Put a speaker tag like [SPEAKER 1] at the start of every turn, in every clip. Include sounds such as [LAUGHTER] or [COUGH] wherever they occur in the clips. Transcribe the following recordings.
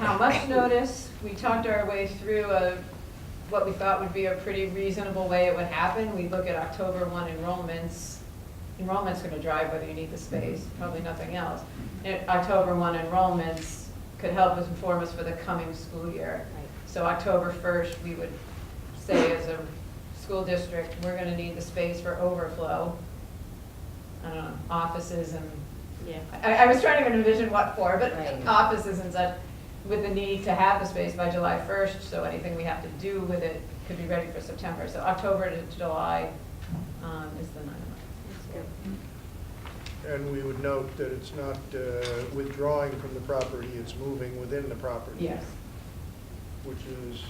[SPEAKER 1] not much notice. We talked our way through a, what we thought would be a pretty reasonable way it would happen. We look at October one enrollments. Enrollment's gonna drive whether you need the space, probably nothing else. And October one enrollments could help us inform us for the coming school year. So October first, we would say as a school district, we're gonna need the space for overflow. I don't know, offices and
[SPEAKER 2] Yeah.
[SPEAKER 1] I, I was trying to envision what for, but
[SPEAKER 2] Right.
[SPEAKER 1] offices and such, with the need to have the space by July first, so anything we have to do with it could be ready for September. So October to July, um, is the nine months.
[SPEAKER 3] And we would note that it's not uh, withdrawing from the property, it's moving within the property.
[SPEAKER 1] Yes,
[SPEAKER 3] Which is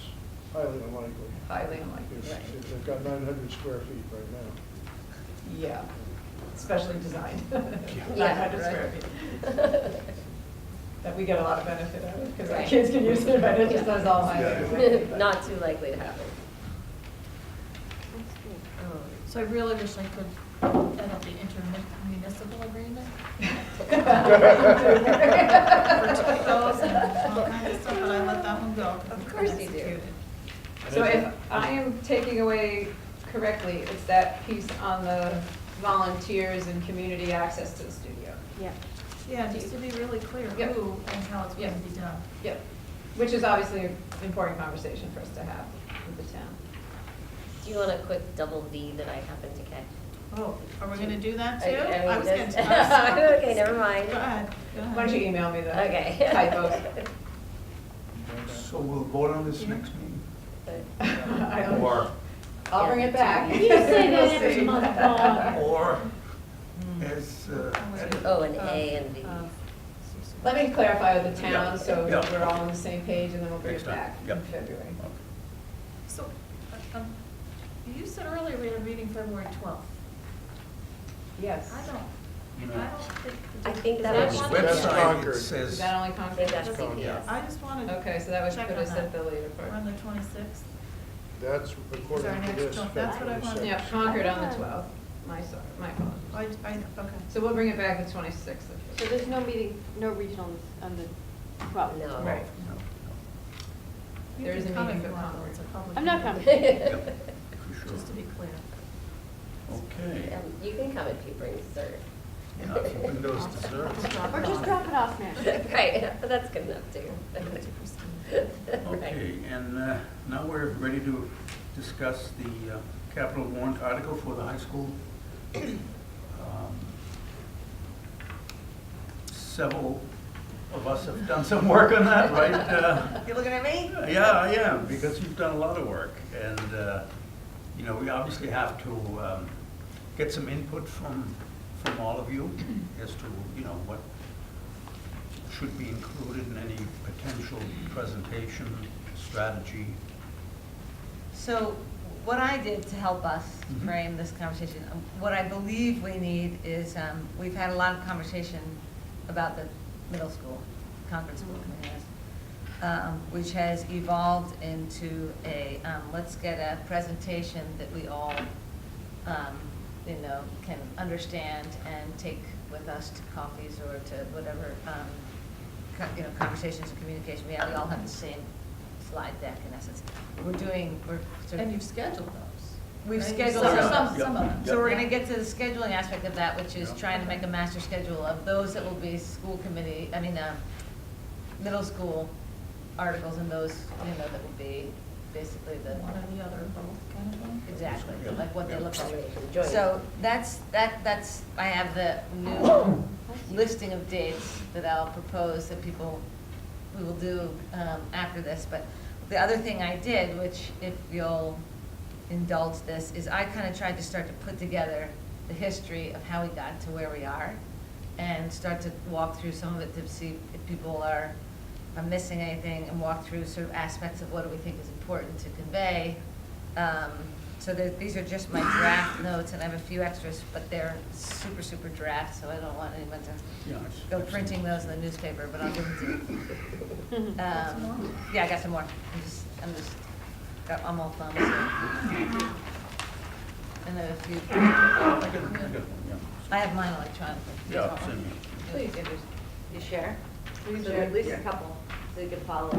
[SPEAKER 3] highly unlikely.
[SPEAKER 1] highly unlikely,
[SPEAKER 3] If
[SPEAKER 1] right,
[SPEAKER 3] if they've got nine hundred square feet right now.
[SPEAKER 1] yeah, especially designed, [LAUGHS] nine
[SPEAKER 2] Yeah,
[SPEAKER 1] hundred square
[SPEAKER 2] right.
[SPEAKER 1] feet. That we get a lot of benefit out of, because our
[SPEAKER 2] Right.
[SPEAKER 1] kids can use it, but it just does all my. [LAUGHS]
[SPEAKER 3] Yeah.
[SPEAKER 2] [LAUGHS] Not too likely to happen. Um,
[SPEAKER 4] So I really wish I could edit the intermunicipal agreement. For typos and all kinds of stuff, but I let that one go. 'cause
[SPEAKER 2] Of
[SPEAKER 4] it's
[SPEAKER 2] course you do.
[SPEAKER 4] executed.
[SPEAKER 1] So if I am taking away correctly, it's that piece on the volunteers and community access to the studio.
[SPEAKER 5] Yeah.
[SPEAKER 4] Yeah, just to be really clear
[SPEAKER 1] Yep.
[SPEAKER 4] who and how it's going to be done.
[SPEAKER 1] Yep, which is obviously an important conversation for us to have with the town.
[SPEAKER 2] Do you want a quick double V that I happened to catch?
[SPEAKER 4] Oh, are we going to do that
[SPEAKER 2] I-
[SPEAKER 4] too?
[SPEAKER 2] I mean,
[SPEAKER 4] I
[SPEAKER 2] [LAUGHS]
[SPEAKER 4] was gonna-
[SPEAKER 2] just-
[SPEAKER 4] I was-
[SPEAKER 2] Okay, never mind.
[SPEAKER 4] Go ahead. go ahead.
[SPEAKER 1] Why don't you email me the
[SPEAKER 2] Okay. [LAUGHS]
[SPEAKER 1] typos?
[SPEAKER 6] So we'll vote on this next meeting?
[SPEAKER 1] I don't-
[SPEAKER 6] Or,
[SPEAKER 1] I'll bring it back.
[SPEAKER 5] You say that
[SPEAKER 1] We'll [LAUGHS]
[SPEAKER 5] every
[SPEAKER 1] see.
[SPEAKER 5] month, Bob.
[SPEAKER 6] or as uh, edited?
[SPEAKER 2] Oh, an A and V.
[SPEAKER 1] Um, Let me clarify with the town,
[SPEAKER 6] Yeah.
[SPEAKER 1] so
[SPEAKER 6] Yeah.
[SPEAKER 1] we're all on the same page, and then we'll bring it
[SPEAKER 6] Next time.
[SPEAKER 1] back in
[SPEAKER 6] Yep.
[SPEAKER 1] February.
[SPEAKER 4] So, uh, um, you said earlier we had a meeting February 12th.
[SPEAKER 1] Yes.
[SPEAKER 4] I don't, I don't think. the-
[SPEAKER 2] I think
[SPEAKER 4] Is
[SPEAKER 2] that
[SPEAKER 6] On
[SPEAKER 2] was-
[SPEAKER 6] the
[SPEAKER 4] one?
[SPEAKER 3] That's
[SPEAKER 6] website, it
[SPEAKER 3] Concord.
[SPEAKER 1] Is
[SPEAKER 6] says,
[SPEAKER 1] that only
[SPEAKER 2] I
[SPEAKER 1] Concord?
[SPEAKER 2] think that's CPS.
[SPEAKER 4] I just wanted.
[SPEAKER 1] Okay, so that would
[SPEAKER 4] check
[SPEAKER 1] put
[SPEAKER 4] on
[SPEAKER 1] us at
[SPEAKER 4] that.
[SPEAKER 1] the later part.
[SPEAKER 4] We're on the 26th.
[SPEAKER 3] That's according to
[SPEAKER 4] next
[SPEAKER 3] this.
[SPEAKER 4] one. That's what I wanted.
[SPEAKER 3] February
[SPEAKER 1] Um, Yeah,
[SPEAKER 3] second.
[SPEAKER 1] Concord on the 12th, my, sorry, my apologies.
[SPEAKER 4] I, I, okay.
[SPEAKER 1] So we'll bring it back the 26th. of
[SPEAKER 5] So
[SPEAKER 1] February.
[SPEAKER 5] there's no meeting, no regional on the, well,
[SPEAKER 2] No.
[SPEAKER 1] Right.
[SPEAKER 2] [LAUGHS]
[SPEAKER 6] no,
[SPEAKER 4] You
[SPEAKER 1] There
[SPEAKER 4] can
[SPEAKER 1] is a
[SPEAKER 4] come
[SPEAKER 1] meeting
[SPEAKER 4] if
[SPEAKER 1] for
[SPEAKER 4] you want, though.
[SPEAKER 1] Concord.
[SPEAKER 4] It's a public
[SPEAKER 5] I'm not
[SPEAKER 4] meeting.
[SPEAKER 5] coming.
[SPEAKER 6] Yep, for sure.
[SPEAKER 4] Just to be clear.
[SPEAKER 6] Okay.
[SPEAKER 2] Um, You can come if you bring dessert.
[SPEAKER 6] Yeah, if you bring those desserts.
[SPEAKER 5] or just drop it off now.
[SPEAKER 2] [LAUGHS]
[SPEAKER 5] [LAUGHS]
[SPEAKER 2] Right, but that's good enough too.
[SPEAKER 4] Give it to Christine.
[SPEAKER 2] [LAUGHS] Right.
[SPEAKER 6] Okay, and uh, now we're ready to discuss the uh, capital warrant article for the high school. Um, Several of us have done some work on that, right? Uh,
[SPEAKER 2] You're looking at me?
[SPEAKER 6] Yeah, I am, because you've done a lot of work, and, uh, you know, we obviously have to um, get some input from, from all of you as to, you know, what should be included in any potential presentation, strategy.
[SPEAKER 7] So what I did to help us
[SPEAKER 6] Mhm.
[SPEAKER 7] frame this conversation, um, what I believe we need is, um, we've had a lot of conversation about the middle school, Concord School
[SPEAKER 4] Mm-hmm.
[SPEAKER 7] Committee, um, which has evolved into a, um, let's get a presentation that we all, um, you know, can understand and take with us to coffees or to whatever, um, co- you know, conversations and communication we have. We all have the same slide deck in essence. We're doing, we're sort of.
[SPEAKER 4] And you've scheduled those.
[SPEAKER 7] We've
[SPEAKER 4] right?
[SPEAKER 7] scheduled
[SPEAKER 4] Some-
[SPEAKER 7] those.
[SPEAKER 4] Some, some of them.
[SPEAKER 7] So we're gonna get to the scheduling aspect of that, which is
[SPEAKER 6] Yeah.
[SPEAKER 7] trying to make a master schedule of those that will be school committee, I mean, um, middle school articles and those, you know, that will be basically the,
[SPEAKER 4] One or the other, both kind of thing.
[SPEAKER 7] exactly,
[SPEAKER 6] Yeah.
[SPEAKER 7] like what they
[SPEAKER 6] Yeah.
[SPEAKER 7] look like.
[SPEAKER 2] Join.
[SPEAKER 7] So that's, that, that's, I have the [COUGHS] new listing of dates that I'll propose that people, we will do um, after this. But the other thing I did, which if you'll indulge this, is I kind of tried to start to put together the history of how we got to where we are and start to walk through some of it to see if people are, are missing anything and walk through sort of aspects of what do we think is important to convey. Um, So there- these are just my draft notes, and I have a few extras, but they're super, super draft, so I don't want anyone to
[SPEAKER 6] Yeah, it's-
[SPEAKER 7] go printing those in the newspaper, but I'll give them to you.
[SPEAKER 4] some more?
[SPEAKER 7] Um, Yeah, I got some more. I'm just, I'm just, got- I'm all thumbs. here. And I have a few, [LAUGHS]
[SPEAKER 6] I got- I got one, yeah.
[SPEAKER 7] I have mine electronically.
[SPEAKER 6] Yeah, it's in here.
[SPEAKER 1] Please,
[SPEAKER 7] You share?
[SPEAKER 1] Please, Sherry.
[SPEAKER 5] a couple.
[SPEAKER 7] they could follow